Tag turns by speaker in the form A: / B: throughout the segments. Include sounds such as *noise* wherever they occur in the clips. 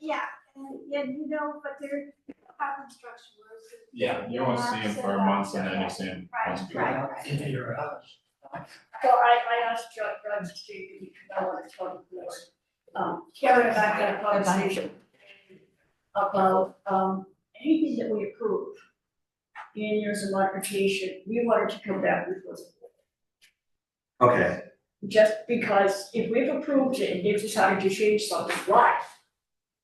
A: Yeah, and, yeah, you know, but they're have construction roads. and-
B: Yeah, you don't see them for months and then you see them once a year.
C: Right, right.
D: into your uh, house.
C: So I, I asked John, John to see if he could know what's on the board. Um, Karen and I had a conversation about, um, anything that we approve in years of modification, we wanted to come back with was
E: Okay,
C: just because if we've approved it and they've decided to change something, why?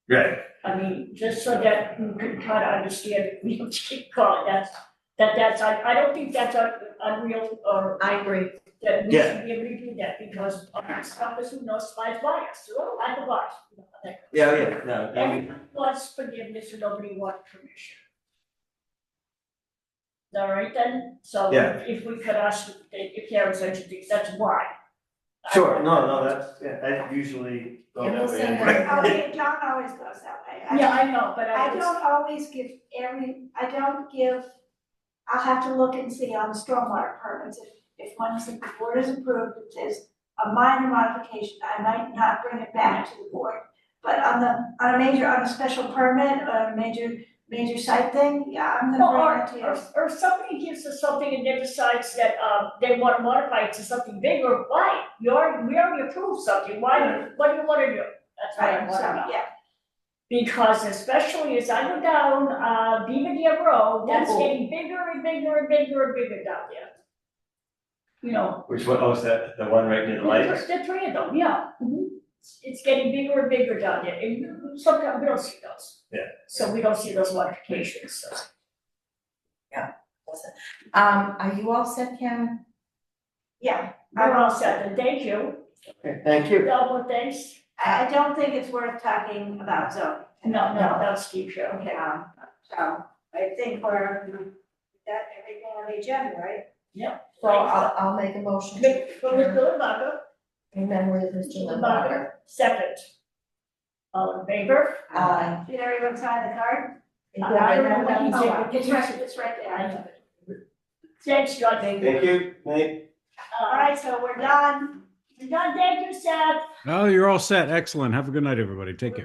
E: right,
C: I mean, just so that you can kind of understand, *laughs* we don't keep calling that's, that that's, I, I don't think that's un- unreal or
F: I agree.
C: that we
E: Yeah.
C: should be able to do that because our stuff is who knows by bias, so I like the bias. you know, that-
E: yeah, oh, yeah, no, I mean,
C: Everyone wants forgiveness and nobody wants permission. All right then, so
E: Yeah.
C: if we could ask, if there was such a thing, that's why.
E: sure, no, no, that's, yeah, that usually,
F: And we'll send
B: Yeah.
F: that.
A: Oh, yeah, John always goes that way. I-
C: Yeah, I know, but
A: I
C: I just,
A: don't always give every, I don't give, I'll have to look and see on stormwater permits, if, if one is, if the board is approved, it says a minor modification, I might not bring it back to the board. But on the, on a major, on a special permit, or a major, major site thing, yeah, I'm gonna
C: or,
A: bring it to
C: or,
A: you.
C: or if somebody gives us something and then decides that, uh, they wanna modify it to something bigger, why? You already, we already approved something, why, what do you wanna do? That's what I
A: Right,
C: wanna know.
A: so, yeah,
C: Because especially as I go down, uh, Beaver Dam Road, that's
F: Oh.
C: getting bigger and bigger and bigger and bigger down there. You know,
E: which one, oh, is that the one right near the light?
C: there's the three of them, yeah. It's- It's getting bigger and bigger down there, and you- sometimes we don't see those.
E: Yeah.
C: So we don't see those modifications, so.
F: Um, are you all set, Karen?
A: yeah,
C: We're all set, and thank you,
E: Okay, Thank you.
C: Double thanks.
A: I, I don't think it's worth talking about zoning.
C: No, no, that's Steve, okay.
A: Okay, um, so, I think we're, that everything on the agenda, right?
F: So uh, I'll, I'll make a motion to
C: Mick, from Mr. Lombardo,
F: in memory of Mr.
C: Lombardo,
F: Limbacher.
C: second. All in favor?
F: Aye.
A: Uh, Did everyone sign the card?
F: Yeah,
C: I
F: I
C: don't
F: know.
C: know.
A: Oh, wow. It's right, it's right there. I have it.
C: Thanks, John.
E: Thank you, Nate.
A: All right, so we're done.
C: John, thank you, Seth.
G: No, you're all set. Excellent. Have a good night, everybody. Take care.